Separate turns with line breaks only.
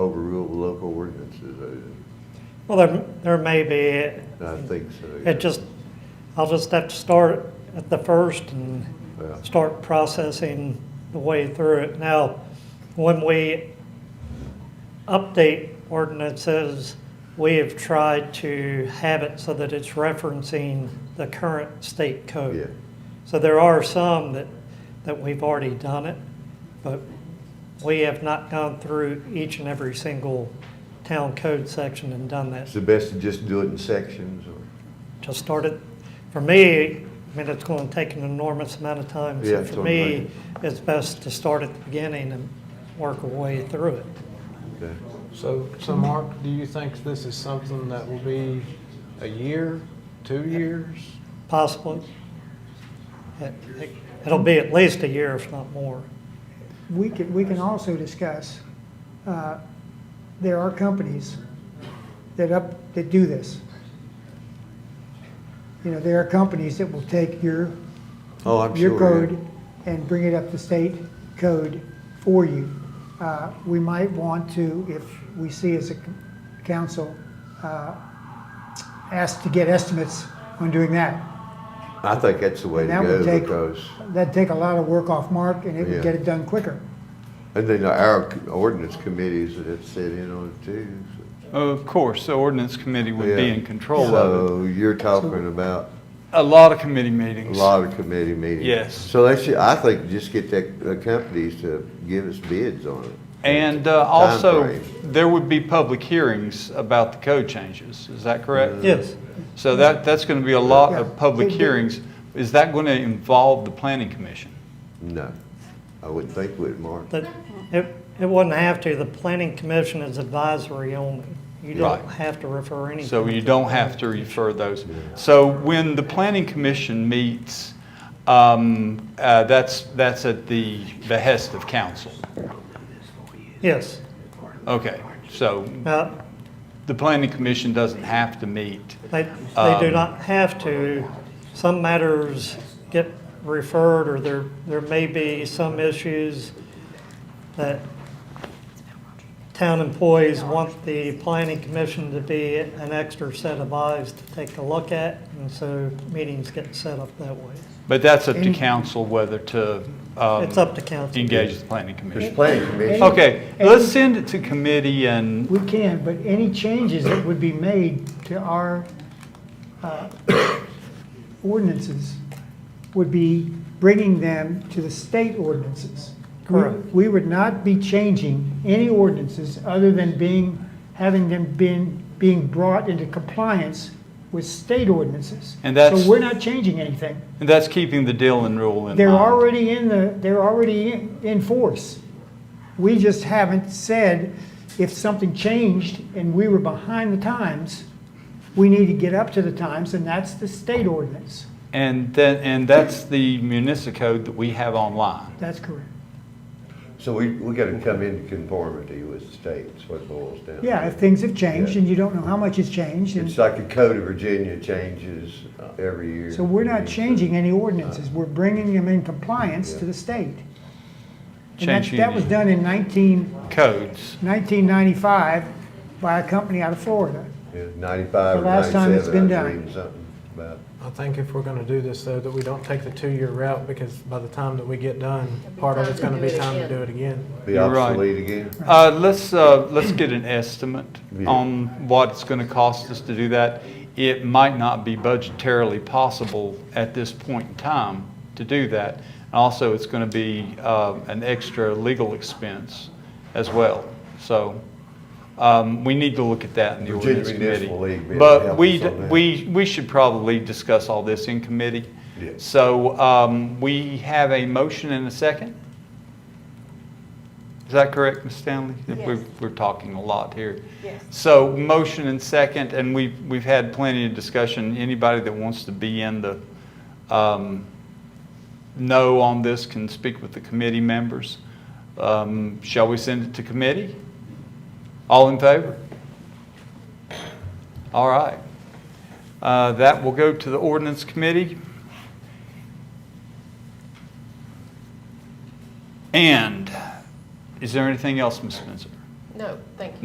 ordinances,
Well, there, there may be,
I, I think so. yeah.
it just, I'll just have to start at the first and
Yeah.
start processing the way through it. Now, when we update ordinances, we have tried to have it so that it's referencing the current state code.
Yeah,
So there are some that, that we've already done it, but we have not gone through each and every single town code section and done that.
it's the best to just do it in sections or,
Just started, for me, I mean, it's going to take an enormous amount of time.
Yeah,
So
it's
for
gonna
me, it's best to start at the beginning and work our way through it.
okay.
So, so Mark, do you think this is something that will be a year, two years?
Possibly. It- it- It'll be at least a year, if not more.
We can, we can also discuss, uh, there are companies that up, that do this. You know, there are companies that will take your,
Oh, I'm sure.
your
yeah.
code and bring it up to state code for you. Uh, We might want to, if we see as a c- council, uh, ask to get estimates on doing that.
I think that's the way to
That would
go
take-
because,
That'd take a lot of work off Mark, and it
Yeah.
would get it done quicker.
and then our ordinance committees that have sit in on it too. so-
Of course, the ordinance committee would be
Yeah.
in control of it.
So you're talking about
A lot of committee
a
meetings.
lot of committee meetings.
Yes.
So that's, I think just get that, the companies to give us bids on it.
And uh, also,
Timeframe.
there would be public hearings about the code changes, is that
Mm.
correct?
Yes,
So that, that's going to be a lot
Yeah.
of public
It- it-
hearings. Is that going to involve the planning commission?
No, I wouldn't think would, Mark.
that, it, it wouldn't have to. The planning commission is advisory only. You don't
Right.
have to refer anything.
So you don't have to refer those. So when the planning commission meets, um, uh, that's, that's at the behest of council.
Yes.
Okay, so
Now,
the planning commission doesn't have to meet.
They, they do
Um,
not have to. Some matters get referred, or there, there may be some issues that town employees want the planning commission to be an extra set of eyes to take a look at, and so meetings get set up that way.
But that's up to
And-
council whether to um,
It's up to council.
engage the planning
There's
commission.
planning commission.
Okay, let's send it to committee and,
We can, but any changes that would be made to our uh, ordinances would be bringing them to the state ordinances. We-
Correct.
We would not be changing any ordinances other than being, having them been, being brought into compliance with state ordinances.
And that's-
So we're not changing anything.
and that's keeping the Dillon rule in mind.
They're already in the, they're already in, in force. We just haven't said if something changed and we were behind the times, we need to get up to the times, and that's the state ordinance.
And that, and that's the municipal code that we have online.
That's correct.
So we, we gotta come into conformity with the state, that's what it boils down to.
Yeah, if things have changed and you don't know how much has changed,
It's
and
like the Code of Virginia changes uh, every year.
so we're not changing any ordinances. We're bringing them in compliance to the state. And that,
Changing
that was
the-
done in 19
Codes.
1995 by a company out of Florida.
Yeah, Ninety-five or
The last time it's
ninety-seven, I was
been done.
reading something about,
I think if we're gonna do this though, that we don't take the two-year route because by the time that we get done, part of it's gonna be time to do it again.
be
You're right.
obsolete again.
Uh, let's, uh, let's get an estimate
Yeah.
on what it's gonna cost us to do that. It might not be budgetarily possible at this point in time to do that. And Also, it's gonna be, uh, an extra legal expense as well. So, um, we need to look at that in the
Virginia
ordinance committee.
Municipal League may help
But we,
us on that.
we, we should probably discuss all this in committee.
Yeah.
So, um, we have a motion and a second? Is that correct, Ms. Stanley? If
Yes.
We're, we're talking a lot here.
Yes.
So motion and second, and we've, we've had plenty of discussion. Anybody that wants to be in the, um, no on this can speak with the committee members. Um, shall we send it to committee? All in favor? All right. Uh, that will go to the ordinance committee. And is there anything else, Ms. Spencer?
No, thank you.